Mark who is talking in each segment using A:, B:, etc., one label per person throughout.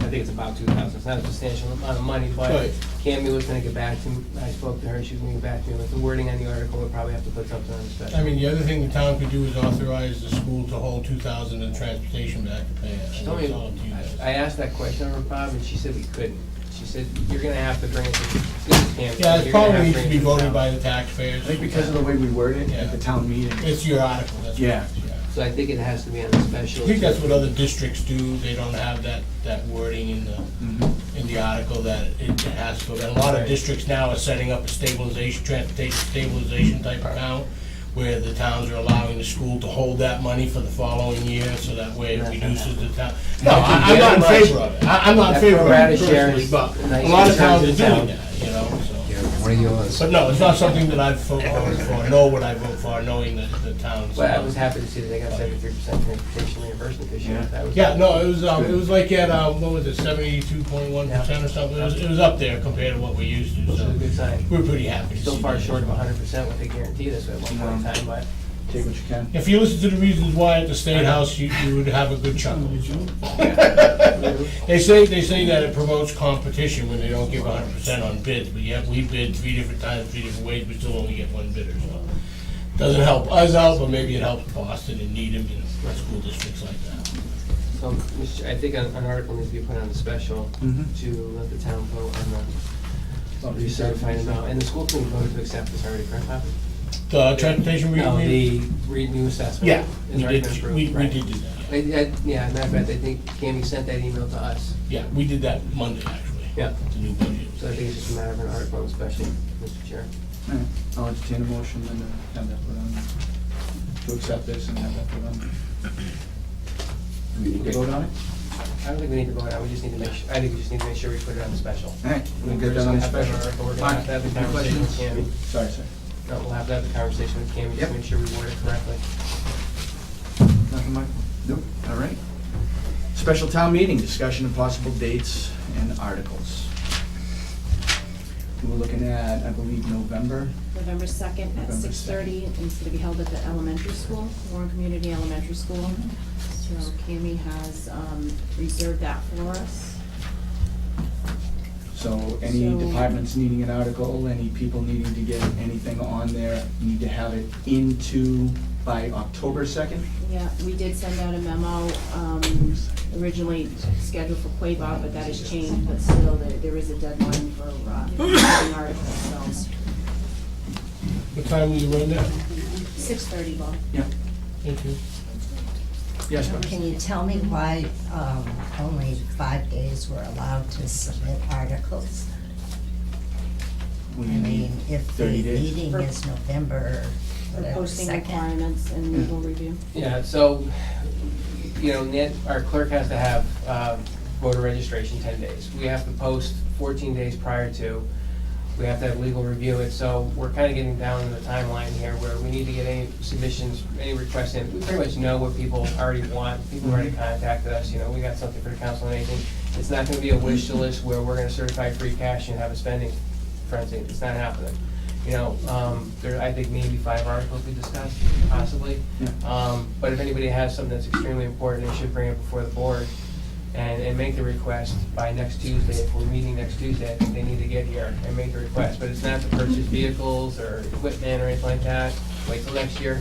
A: think it's about two thousand, it's not a substantial amount of money, but
B: Right.
A: Cammy was gonna get back to me, I spoke to her, she was gonna get back to me with the wording on the article, we'll probably have to put something on the special.
B: I mean, the other thing the town could do is authorize the school to hold two thousand in transportation back to pay.
A: She
B: That's
A: told me,
B: all up to you guys.
A: I asked that question of her, Bob, and she said we couldn't. She said, you're gonna have to bring it to, this is Camden.
B: Yeah, it
A: You're gonna
B: probably
A: have
B: needs to
A: bring
B: be
A: it the
B: voted
A: town."
B: by the taxpayers.
C: I think because of the way we word it at the town meeting.
B: It's your article, that's
C: Yeah.
B: correct, yeah.
A: So I think it has to be on the special.
B: I think that's what other districts do, they don't have that, that wording in the,
A: Mm-hmm.
C: Mhm.
B: in the article that it has to, and a lot of districts now are setting up a stabilization, transportation stabilization type account, where the towns are allowing the school to hold that money for the following year, so that way it reduces the town. No, I- I'm not in favor of it, I- I'm not in favor of
A: That
B: it
A: pro rata share
B: personally,
A: is
B: but a
A: nice
B: lot of
A: in terms
B: towns are
A: of
B: doing
A: town.
B: that, you know, so.
D: What are yours?
B: But no, it's not something that I've voted for, nor would I vote for, knowing that the towns.
A: But I was happy to see that they got seventy-three percent transportation reimbursement this year.
C: Yeah.
A: That was-
B: Yeah, no, it was, um, it was like at, um, what was it, seventy-two point one percent or something, it was, it was up there compared to what we used to,
A: Which is a
B: so
A: good sign.
B: we're pretty happy to see
A: Still far
B: that.
A: short of hundred percent what they guaranteed us at one point in time, but
C: Take what you can.
B: If you listen to the reasons why at the State House, you, you would have a good chuckle. They say, they say that it promotes competition when they don't give hundred percent on bids, but yet we bid three different times, three different ways, we still only get one bidder, so. Doesn't help us out, but maybe it helps Boston and Needham and school districts like that.
A: So, Mr. Chair, I think an an article needs to be put on the special
B: Mm-hmm.
C: Mhm.
A: to let the town vote on the recertified amount. And the school committee voted to accept this already, correct, Bob?
B: The transportation, we,
A: No,
B: we,
A: the re- new assessment.
B: yeah,
A: has
B: we
A: already
B: did,
A: been approved,
B: we, we
A: right.
B: did do that,
A: I, I, yeah, matter of fact, I think Cammy sent that email to us,
B: yeah, we did that Monday, actually.
A: Yeah.
B: The new
A: so I
B: budget.
A: think it's just a matter of an article on special, Mr. Chair.
C: All right, I'll entertain a motion and then have that put on, to accept this and have that put on. We Vote on it?
A: I don't think we need to vote on, it, we just need to make, su- I think we just need to make sure we put it on the special.
C: All right, we'll
A: We're
C: get
A: just
C: that
A: gonna
C: on the
A: have to have an article,
C: special.
A: We're gonna have to have the
C: Mark, any
A: conversation with Cammy,
C: questions? Sorry, sir.
A: no, we'll have to have the conversation with Cammy, just
C: Yep.
A: make sure we word it correctly.
C: Nothing, Mike? Nope, all right. Special town meeting, discussion of possible dates and articles. We We're looking at, I believe, November.
E: November second at
C: November
E: six thirty, it's gonna be held at the elementary school, Warren Community Elementary School. So Cammy has, um, reserved that for us.
C: So any
E: So-
C: departments needing an article, any people needing to get anything on there, need to have it into by October second?
E: Yeah, we did send out a memo, um, originally scheduled for Quabah, but that has changed, but still, there, there is a deadline for, uh, having articles, so.
B: What time will you run that?
E: Six thirty, Bob.
B: Thank you.
C: Yes, ma'am.
F: Can you tell me why um, only five days were allowed to submit articles?
C: We
F: I
C: need
F: mean, if the
C: 30 days.
F: meeting is November,
E: For
F: whatever,
E: posting
F: second.
E: requirements and legal review.
A: Yeah, so, you know, Nan- our clerk has to have uh, voter registration 10 days. We have to post 14 days prior to, we have to have legal review it, so we're kind of getting down to the timeline here where we need to get any submissions, any requests in. We pretty much know what people already want, people already contacted us, you know, we got something for the council and anything. It's not going to be a wish list where we're going to certify free cash and have a spending frenzy, it's not happening. You know, um, there, I think maybe five articles we discussed, possibly. Um, But if anybody has something that's extremely important, they should bring it before the board and, and make the request by next Tuesday. If we're meeting next Tuesday, I think they need to get here and make the request. But it's not to purchase vehicles or equipment or anything like that. Wait till next year.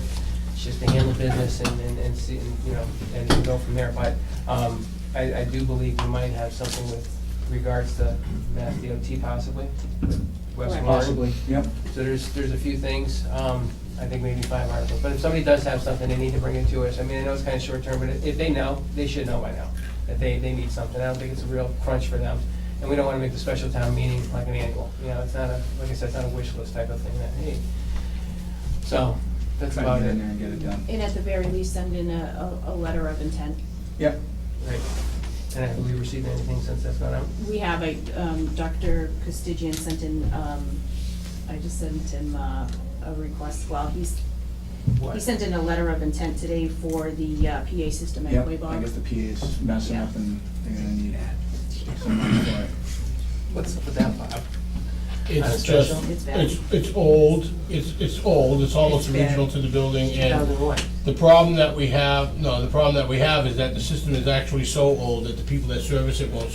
A: It's just to handle business and, and, and see, and, you know, and go from there. But um, I, I do believe we might have something with regards to Mass DOT possibly, with West Warren.
E: Correct.
C: Possibly, yep.
A: So there's, there's a few things, um, I think maybe five articles, but if somebody does have something, they need to bring it to us. I mean, I know it's kind of short term, but if if they know, they should know by now, that they, they need something. I don't think it's a real crunch for them. And we don't want to make the special town meeting like an annual, you know, it's not a, like I said, it's not a wish list type of thing that, hey. So, that's
C: Try
A: about
C: to get
A: it.
C: in there and get it done.
E: And at the very least, send in a, a, a letter of intent.
C: Yep,
A: Right. And have we received anything since that's gone out?
E: We have a, um, Dr. Costigian sent in, um, I just sent him, uh, a request, well, he's, he
A: What?
E: sent in a letter of intent today for the, uh, PA system at
C: yep, I guess
E: Quabog.
C: the PA is messing
E: Yeah.
C: up and they're gonna need some money for it.
A: What's up with that, Bob? Uh,
B: It's
A: special?
B: just,
E: It's bad.
B: it's, it's old, it's, it's old, it's almost
A: It's bad.
B: original to the building, and
A: 2001.
B: the problem that we have, no, the problem that we have is that the system is actually so old that the people that service it won't